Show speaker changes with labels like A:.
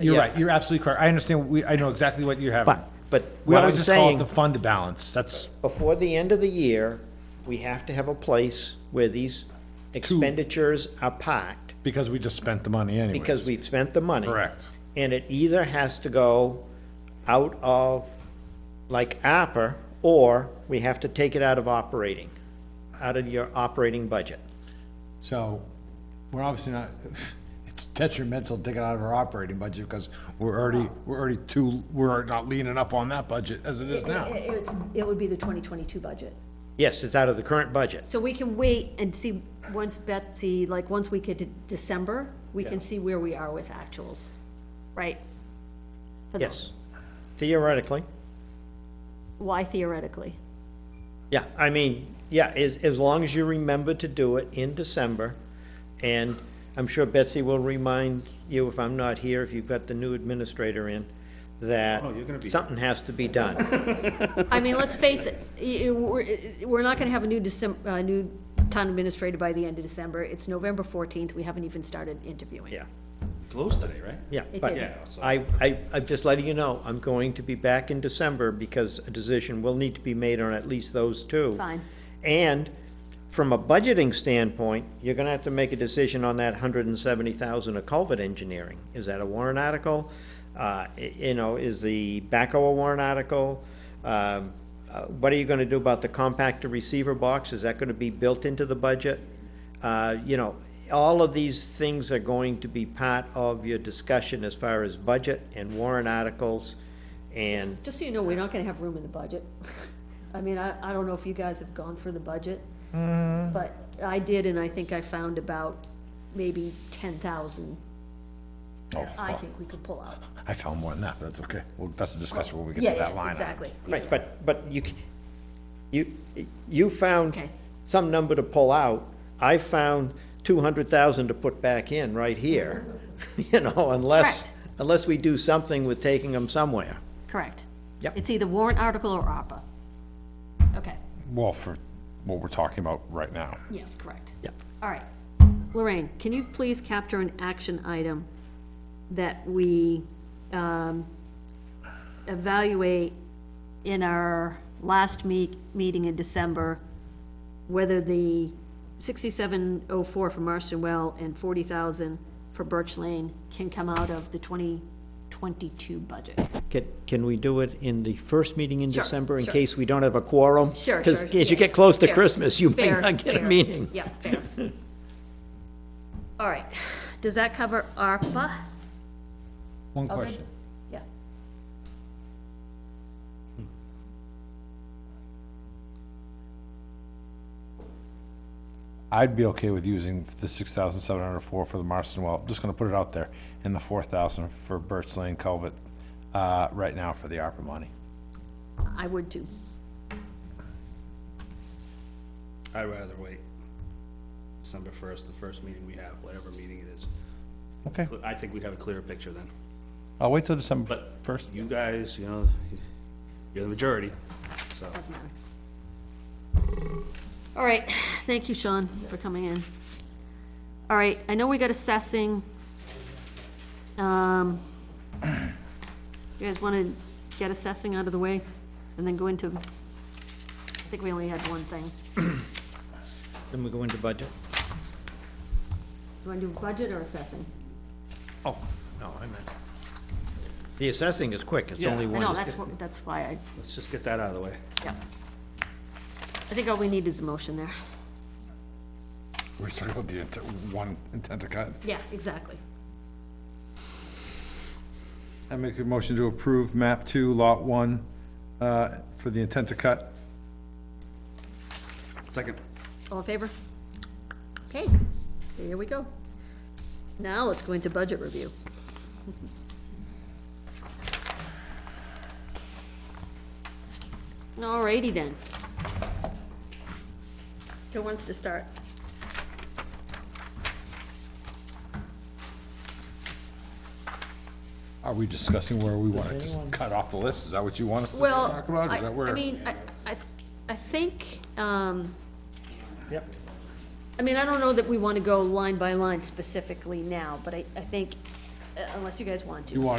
A: You're
B: Yeah.
A: right, you're absolutely correct. I understand, we, I know exactly what you have.
B: But, but
A: We
B: what
A: always
B: I'm
A: just call it
B: saying,
A: the fund balance, that's,
B: before the end of the year, we have to have a place where these expenditures are parked,
A: because we just spent the money anyway.
B: because we've spent the money.
A: Correct.
B: And it either has to go out of, like ARPA, or we have to take it out of operating, out of your operating budget.
C: So, we're obviously not, it's detrimental to take it out of our operating budget, because we're already, we're already too, we're not lean enough on that budget as it is
D: It-
C: now.
D: It's, it would be the 2022 budget.
B: Yes, it's out of the current budget.
D: So we can wait and see, once Betsy, like, once we get to December, we can see where we are with actuals, right? For the-
B: Yes, theoretically.
D: Why theoretically?
B: Yeah, I mean, yeah, as, as long as you remember to do it in December, and I'm sure Betsy will remind you if I'm not here, if you've got the new administrator in, that
E: Oh,
B: something has to be done.
D: I mean, let's face it, y- y- we're, we're not gonna have a new Decem, uh, new town administrator by the end of December. It's November fourteenth, we haven't even started interviewing.
B: Yeah,
E: Closed today, right?
B: yeah,
D: It
B: but
D: did.
E: Yeah, so-
B: I, I, I'm just letting you know, I'm going to be back in December because a decision will need to be made on at least those two.
D: Fine.
B: And from a budgeting standpoint, you're gonna have to make a decision on that hundred and seventy thousand of culvert engineering. Is that a warrant article? Uh, i- you know, is the backhoe a warrant article? Um, uh, what are you gonna do about the compactor receiver box? Is that gonna be built into the budget? Uh, you know, all of these things are going to be part of your discussion as far as budget and warrant articles and
D: Just so you know, we're not gonna have room in the budget. I mean, I, I don't know if you guys have gone through the budget,
C: Mm.
D: but I did, and I think I found about maybe ten thousand.
C: Oh,
D: I think we could pull out.
C: I found more than that, but that's okay. Well, that's a discussion when we get
D: Yeah,
C: to that
D: yeah,
C: line. item.
D: exactly. Yeah,
B: Right, but, but you, c- you, you
D: Okay.
B: found some number to pull out. I found two hundred thousand to put back in right here, you know, unless,
D: Correct.
B: unless we do something with taking them somewhere.
D: Correct.
B: Yep.
D: It's either warrant article or ARPA. Okay,
C: Well, for what we're talking about right now.
D: yes, correct.
B: Yep.
D: All right. Lorraine, can you please capture an action item that we um, evaluate in our last meet, meeting in December, whether the 6704 for Marston Well and 40,000 for Birch Lane can come out of the 2022 budget?
B: Can, can we do it in the first meeting in
D: Sure,
B: December in
D: sure.
B: case we don't have a quorum?
D: Sure,
B: Because
D: sure,
B: as you
D: yeah.
B: get close to
D: Fair,
B: Christmas, you may
D: fair,
B: not get a
D: fair.
B: meeting.
D: Yeah, fair. All right, does that cover ARPA?
C: One
D: Okay.
C: question.
D: Yeah.
C: I'd be okay with using the six thousand seven hundred four for the Marston Well, just gonna put it out there, and the four thousand for Birch Lane Culvert, uh, right now for the ARPA money.
D: I would too.
E: I'd rather wait. December first, the first meeting we have, whatever meeting it is.
C: Okay,
E: I think we'd have a clearer picture then.
C: I'll wait till December
E: But-
C: first.
E: You guys, you know, you're the majority, so.
D: Doesn't matter. All right, thank you, Sean, for coming in. All right, I know we got assessing. Um, You guys want to get assessing out of the way and then go into, I think we only had one thing.
B: Then we go into budget.
D: You want to do budget or assessing?
B: Oh, no, I meant. The assessing is quick, it's
E: Yeah.
B: only one.
D: No, that's, what- that's why I,
E: Let's just get that out of the way.
D: yeah. I think all we need is a motion there.
C: We're talking about the intent, one intent to cut.
D: Yeah, exactly.
C: I make a motion to approve map two, lot one, uh, for the intent to cut.
E: Second.
D: All in favor? Okay, here we go. Now let's go into budget review. Alrighty then. Who wants to start?
C: Are we discussing where we wanna just cut off the list? Is that what you want us to
D: Well,
C: talk about? Is
D: I-
C: that where?
D: I mean, I, I, I think, um.
B: Yep.
D: I mean, I don't know that we wanna go line by line specifically now, but I, I think uh,
F: unless you guys want to.
D: You want